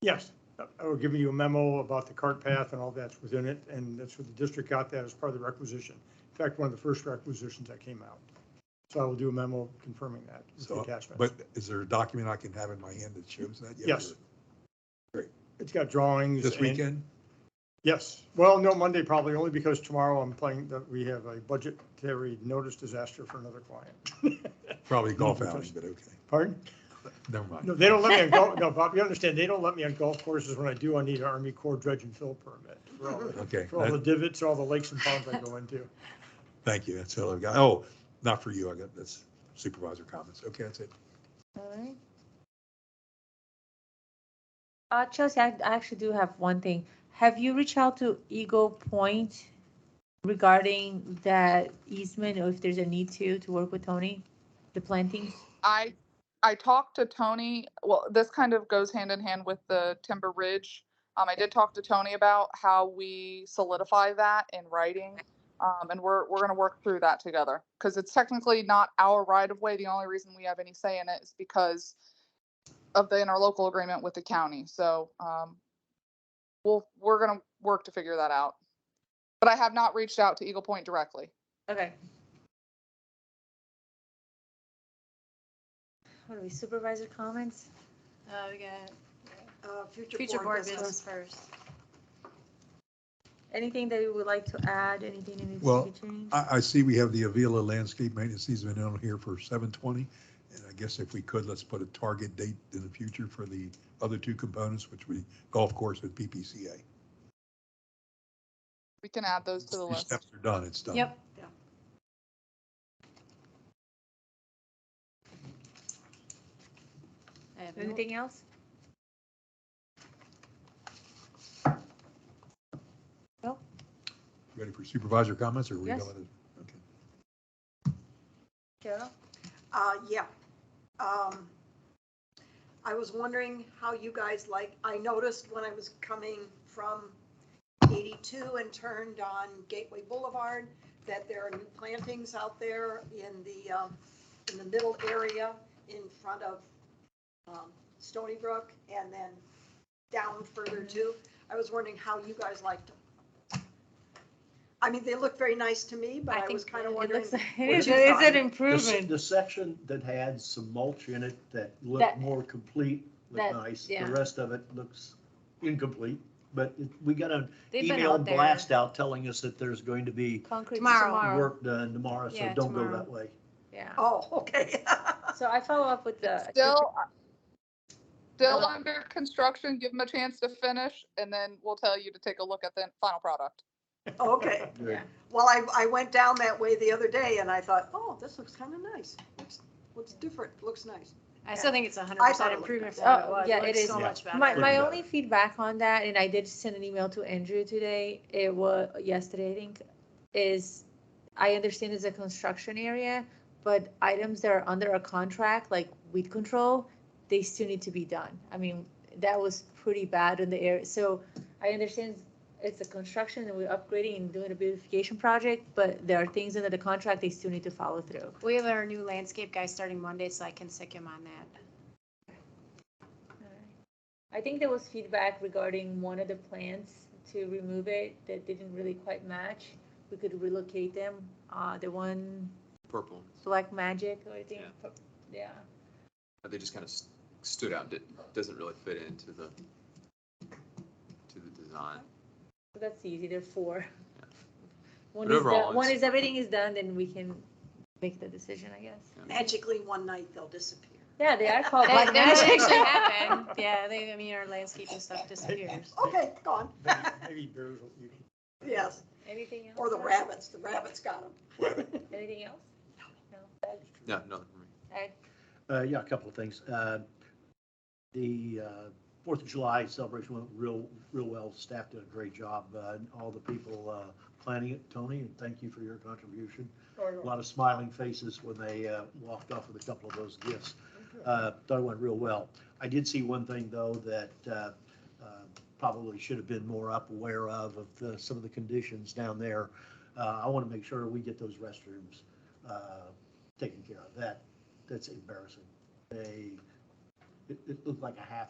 Yes, I will give you a memo about the cart path and all that's within it, and that's what the district got that as part of the requisition. In fact, one of the first requisitions that came out. So I will do a memo confirming that with the So, attachment. But is there a document I can have in my hand that shows that? yet, Yes. or It's got drawings. This and- weekend? Yes. Well, no, Monday probably, only because tomorrow I'm playing, that we have a budgetary notice disaster for another client. Probably golf Nothing outing, touched. but okay, Pardon? never mind. No, they don't let me on golf, no, Bob, you understand, they don't let me on golf courses. When I do, I need an Army Corps dredge and fill permit for all the- Okay, for all the that- divots, all the lakes and ponds I go into. thank you, that's all I've got. Oh, not for you, I got, that's supervisor comments. Okay, that's it. All right. Uh, Chelsea, I, I actually do have one thing. Have you reached out to Eagle Point regarding that easement or if there's a need to, to work with Tony? The plantings? I I talked to Tony. Well, this kind of goes hand in hand with the Timber Ridge. Um, I did talk to Tony about how we solidify that in writing. Um, and we're, we're going to work through that together because it's technically not our right of way. The only reason we have any say in it is because of the interlocal agreement with the county. So, um, we'll, we're going to work to figure that out. But I have not reached out to Eagle Point directly. Okay. What are we, supervisor comments? Uh, we got, uh, Future future board board business business. first. Anything that you would like to add, anything that needs Well, to be changed? I, I see we have the Avila Landscape Maintenance easement on here for seven twenty. And I guess if we could, let's put a target date in the future for the other two components, which we golf course and PPCA. We can add those to the These list. Steps are done, it's done. Yep. I have no- Anything else? Ready for supervisor comments or? are we Yes. going to- Okay. Cheryl? Uh, yeah. Um, I was wondering how you guys like, I noticed when I was coming from 82 and turned on Gateway Boulevard, that there are new plantings out there in the, um, in the middle area in front of um, Stony Brook and then down further Mm-hmm. too. I was wondering how you guys liked them. I mean, they look very nice to me, but I I think was kind it of wondering. looks- It what is, you it's thought. an The s- improvement. The section that had some mulch in it that That- looked more complete, that- looked nice. The yeah. rest of it looks incomplete, but it- we got an They've been email out there. blast out telling us that there's going to be Concrete Tomorrow. tomorrow. work done tomorrow, so Yeah, don't go tomorrow. that way. Yeah. Oh, okay. So I follow up with the. Still, still Oh. under construction, give them a chance to finish, and then we'll tell you to take a look at the final product. Okay. Yeah. Well, I, I went down that way the other day and I thought, oh, this looks kind of nice. Looks- Looks different, looks nice. I still think it's a hundred I thought percent it looked improvement nice. from what it Oh, was. yeah, It it looks is. so Yeah. much better. My, Pretty my bad. only feedback on that, and I did send an email to Andrew today, it was, yesterday, I think, is, I understand it's a construction area, but items that are under a contract, like weed control, they still need to be done. I mean, that was pretty bad in the area, so I understand it's a construction and we're upgrading and doing a beautification project, but there are things under the contract they still need to follow through. We have our new landscape guy starting Monday, so I can sick him on that. I think there was feedback regarding one of the plants to remove it that didn't really quite match. We could relocate them, uh, the one purple. Black Magic, I think, Yeah. pro- yeah. Uh, They just kind of stood out. It doesn't really fit into the to the design. So that's easy, there are four. One But is, done- overall, one it's- is, everything is done, then we can make the decision, I guess. Magically, one night they'll disappear. Yeah, they are called That, Black that Magic. actually happened. Yeah, they, I mean, our landscaping stuff disappears. Okay, gone. Maybe- Maybe bears will eat 'em. Yes, Anything else? or the Doug? rabbits, the rabbits got them. Anything else? No. Doug? No, nothing for me. Ag? Uh, yeah, a couple of things. Uh, The uh, Fourth of July celebration went real, real well. Staff did a great job. uh, and All the people uh, planning it, Tony, and thank you for your contribution. A lot of smiling faces when they uh, walked off with a couple of those gifts. Uh, Thought it went real well. I did see one thing, though, that uh, uh, probably should have been more up aware of, of the- some of the conditions down there. Uh, I want to make sure we get those restrooms uh, taken care of. That, that's embarrassing. They, it, it looked like a half